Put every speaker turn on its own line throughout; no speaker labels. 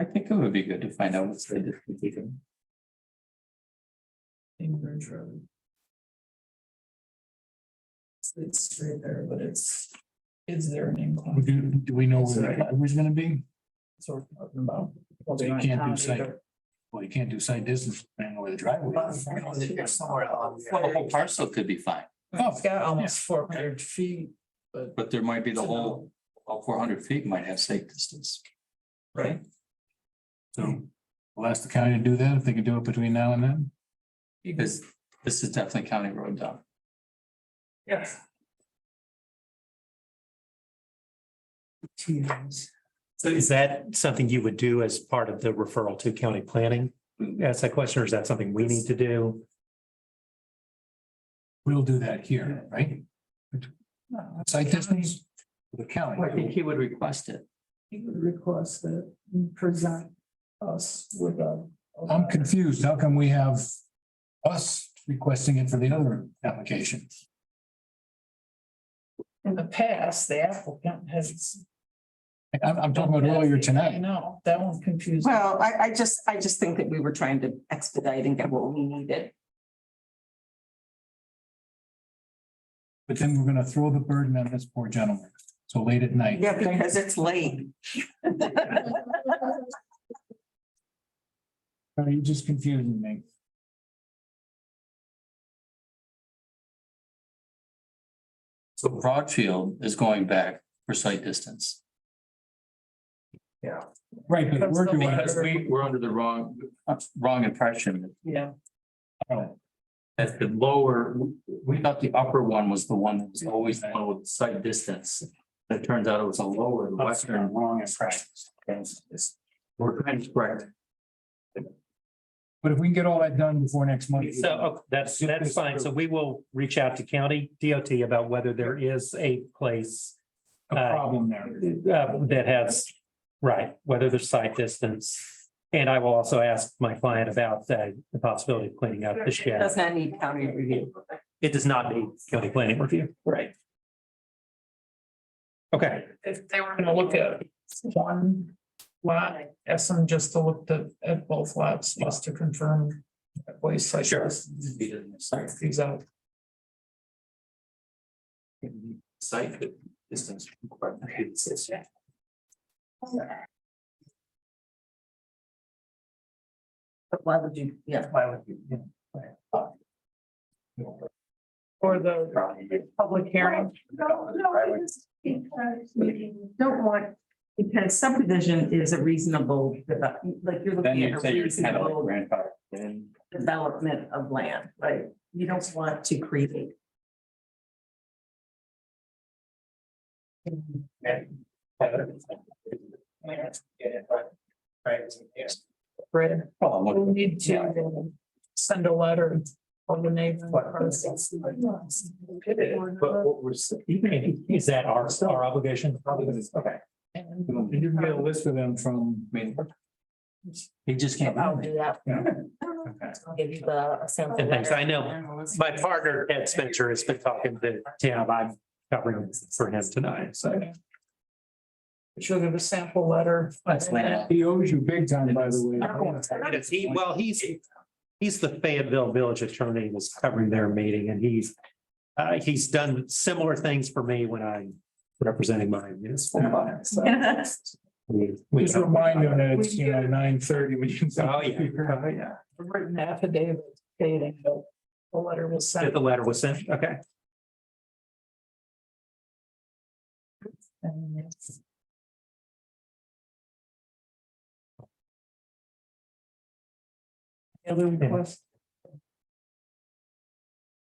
I think it would be good to find out what's the difference.
Cambridge Road. It's- It's straight there, but it's, is there an incline?
Do, do we know where the driveway's gonna be?
That's what we're talking about. Well,
They
they're not
can't do
counted
site.
either.
Well, you can't do site distance, depending on where the driveway is.
Somewhere else.
Well, the whole parcel could be fine,
Oh,
It's got almost four hundred feet, but.
but there might be the
it's
whole, all four hundred feet might have safe distance.
Right.
So we'll ask the county to do that, if they can do it between now and then.
Because this is definitely county road down.
Yes.
So is that something you would do as part of the referral to county planning? Ask that question, or is that something we need to do?
We'll do that here, right?
Uh,
Site distance with the
I think
county.
he would request it.
He would request that you present us with a.
I'm confused. How come we have us requesting it for the other application?
In the past, the applicant has.
I- I'm, I'm talking about earlier
I
tonight.
know, that one confused. me.
Well, I, I just, I just think that we were trying to expedite and get what we needed.
But then we're gonna throw the burden on this poor gentleman. So late at night.
Yeah, because it's late.
Are you just confusing me?
So Broadfield is going back for site distance.
Right, but we're doing.
Because we, we're under the wrong, wrong impression.
Yeah,
That the lower, we thought the upper one was the one that was always the one with site distance. It turns out it was a lower, the western.
Wrong impression.
We're trying to correct.
But if we can get all that done before next month.
So okay, that's, that's fine. So we will reach out to county DOT about whether there is a place
A problem there.
uh, that has, right, whether there's site distance. And I will also ask my client about uh, the possibility of cleaning up the
It
shed.
Does not need county review.
It does not need county planning review.
right.
Okay,
If they were gonna look at one lot, ask them just to look the- at both lots, just to confirm. that Way site.
Sure.
These out.
Site distance.
But why would you, yeah,
Or the public hearing.
No, no, it is because you don't want, because subdivision is a reasonable, develop- like you're
Then
looking
you
at a
say you're kind of like
reasonable
grandfather. Then
development of land, right? You don't want to create.
Right,
Well,
we
look,
need to uh, send a letter on the name.
but what we're, is that our, our obligation? Okay.
You can get a list of them from,
I mean. He just can't.
I'll do that.
Yeah.
I'll give you the uh, sample.
And thanks,
letter.
I know. My partner, Ed Spencer, has been talking to Tim. I'm covering for him tonight, so.
Should have a sample letter.
he owes you big time, by the way.
Yes, he- well, he's, he's the Fayetteville Village Attorney was covering their meeting and he's. Uh, he's done similar things for me when I'm representing my municipal clients. so we- we-
Just remind them that it's, you know, nine thirty when you.
Oh, yeah. Oh, yeah.
a written affidavit stating that the letter was
That
sent
the letter was sent, okay.
and it's Other request,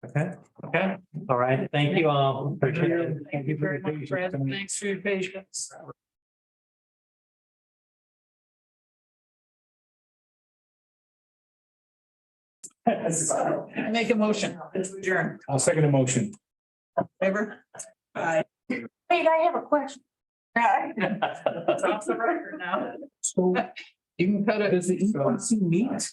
Okay, okay, all right, thank you all. Appreciate it.
thank you very much, Brad, thanks for your patience. Make a motion, adjourn.
I'll second the motion.
Favor? Aye.
Wait, I have a question. Uh,
E
That's off the record now. You can cut it as the.
So-
meat.